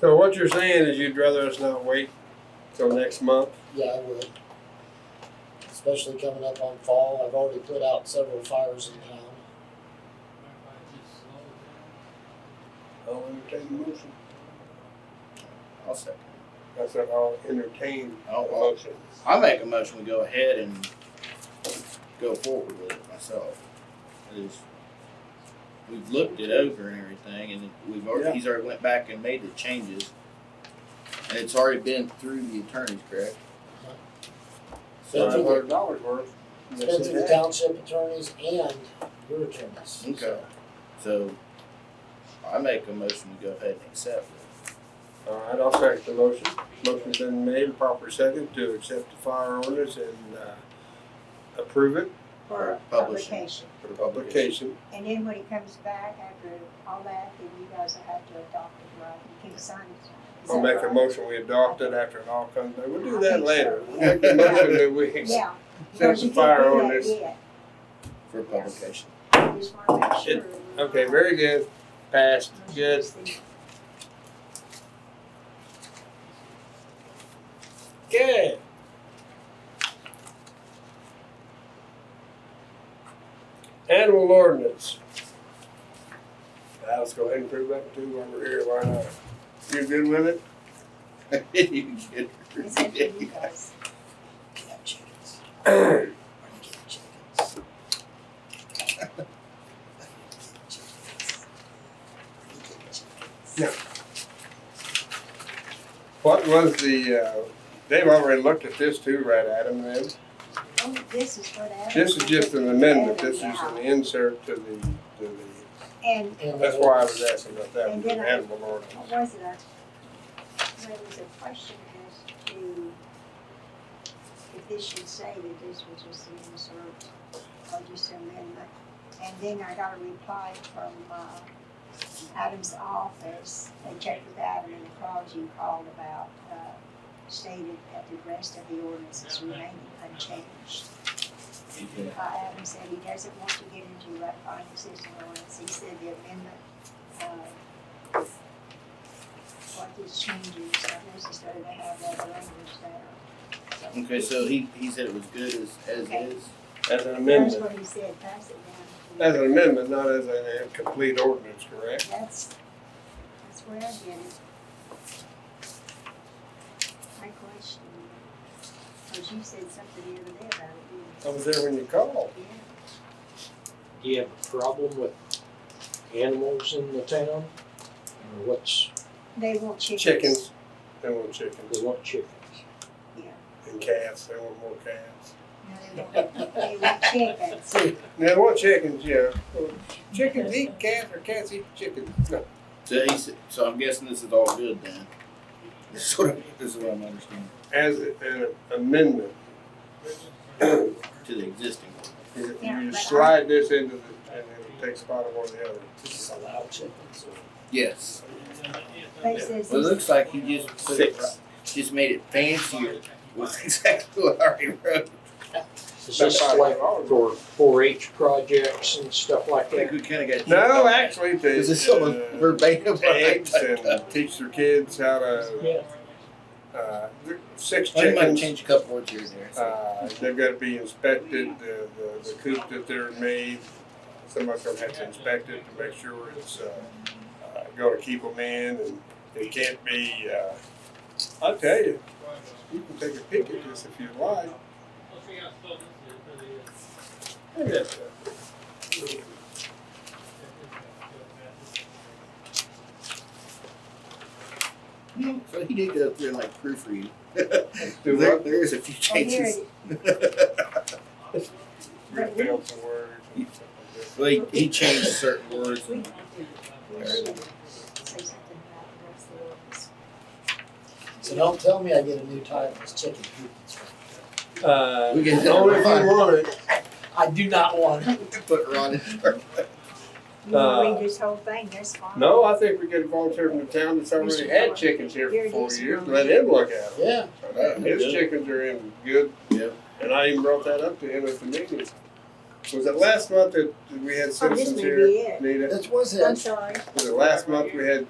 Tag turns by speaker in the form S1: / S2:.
S1: So what you're saying is you'd rather us not wait till next month?
S2: Yeah, I would. Especially coming up on fall, I've already put out several fires in town.
S1: I'll entertain the motion.
S3: I'll second.
S1: I said I'll entertain the
S3: I'll- I'll-
S1: motion.
S3: I make a motion, we go ahead and go forward with it myself. Is we've looked it over and everything, and we've already, he's already went back and made the changes. And it's already been through the attorneys, correct?
S1: Five
S2: Been
S3: So,
S2: through
S1: hundred dollars worth.
S2: It's been through the township attorneys and your attorneys.
S4: Mm-hmm.
S3: okay, so I make a motion, we go ahead and accept it.
S1: All right, I'll second the motion. Motion's been made and proper second to accept the fire orders and, uh, approve it
S5: for
S3: Publishing.
S5: publication.
S1: for publication.
S5: And then when it comes back after all that, then you guys will have to adopt it, right? You can sign it. Is
S1: I'll
S5: that
S1: make a
S5: right?
S1: motion, we adopt it after it all comes, back. we'll do
S5: I
S1: that
S5: think
S1: later.
S5: so.
S1: We'll Make a motion that we accept
S5: Yeah.
S1: the
S5: Well, you can't
S1: fire
S5: do that
S1: orders.
S5: yet.
S3: For publication.
S5: You just wanna make
S1: It-
S5: sure.
S1: Okay, very good. Passed, good. Good. Animal ordinance. Now, Let's go ahead and prove that too while we're here, why not? You good with it?
S3: You get
S5: It's up to you guys.
S2: Can I have chickens? Are you getting chickens? Are you getting chickens? Are you getting chickens?
S1: What was the, uh, they've already looked at this too, right, Adam, then?
S5: Oh, this is for that.
S1: This is just an amendment, this is an insert to the, to
S5: And
S1: the,
S2: And
S1: that's why I was asking about that,
S5: And
S1: with the
S5: then I-
S1: animal ordinance.
S5: what was it? There was a question as to if this should say that this was just an insert or just an amendment. And then I got a reply from, uh, Adam's office. They checked with Adam and the clause you called about, uh, stated that the rest of the ordinance is remaining unchanged.
S3: You can-
S5: Uh, Adam said he doesn't want to get into that final decision ordinance, he said the amendment, uh, what these changes are necessary to have that language there.
S3: Okay, so he, he said it was good as,
S1: As an
S3: as is.
S5: That's
S1: amendment,
S5: what he said, pass it down.
S1: as an amendment, not as a complete ordinance, correct?
S5: That's, that's where I get it. My question, cause you said something the other day about it,
S1: I was there when you called.
S5: didn't you?
S4: Do you have a problem with animals in the town? Or what's,
S5: Yeah, they want chickens.
S1: Chickens, they want
S4: they
S1: chickens,
S4: want chickens?
S1: and cats, they want more cats.
S5: No, they want, they want chickens.
S1: They want chickens, yeah. Chickens eat cats, or cats eat chickens. No,
S3: So he said, so I'm guessing this is all good then. This is what, I- this is what I'm understanding,
S1: As an amendment,
S3: to the existing one.
S1: you
S5: Yeah,
S1: you
S5: but I-
S1: slide this into the, and it takes spot of one or the other.
S2: Does this allow chickens or?
S3: Yes.
S5: They says oh,
S3: Well, it
S5: it's-
S3: looks like you just put it,
S1: Six.
S3: just made it fancier, was exactly what I already wrote.
S4: Is this
S1: About
S4: like
S1: $5.
S4: for four H projects and stuff
S3: I
S4: like
S3: think
S4: that?
S3: we kinda got.
S1: No, actually, they.
S3: Is this someone
S1: uh,
S3: verbatim what I
S1: Eggs
S3: typed
S1: and
S3: up?
S1: teach their kids how to,
S4: Yeah.
S1: uh, th- six
S3: I might
S1: chickens.
S3: change a couple words here and there, so.
S1: Uh, they've gotta be inspected, the, the, the coop that they're made, somebody's gonna have to inspect it to make sure it's, uh, uh, gonna keep them in and it can't be, uh, I'll tell you, you can take a peek at this if you like. Look at that.
S3: So he did go through and like proofread.
S1: Do
S3: There,
S1: what?
S3: there is a few
S5: Oh, here
S3: changes.
S5: it-
S1: You're gonna fail some words and stuff like that.
S3: Well, he, he changed certain words.
S5: we-
S3: and-
S5: we should say something about the rest of the ordinance.
S2: So don't tell me I get a new title, it's chicken coop.
S1: Uh,
S3: We can-
S1: only if you want it.
S2: I do not want it.
S3: Put Ron in there.
S5: You wanna
S1: Uh,
S5: read this whole thing, that's fine.
S1: No, I think we get a volunteer from the town that's already had chickens here for four years, let him look at them.
S2: Yeah,
S1: His chickens are in good.
S3: Yep.
S1: And I even brought that up to him at the meeting. Was it last month that we had
S5: Oh, this
S1: citizens
S5: may
S1: here,
S5: be it.
S1: Nita?
S2: that was it.
S5: I'm sorry.
S1: Was it last month we had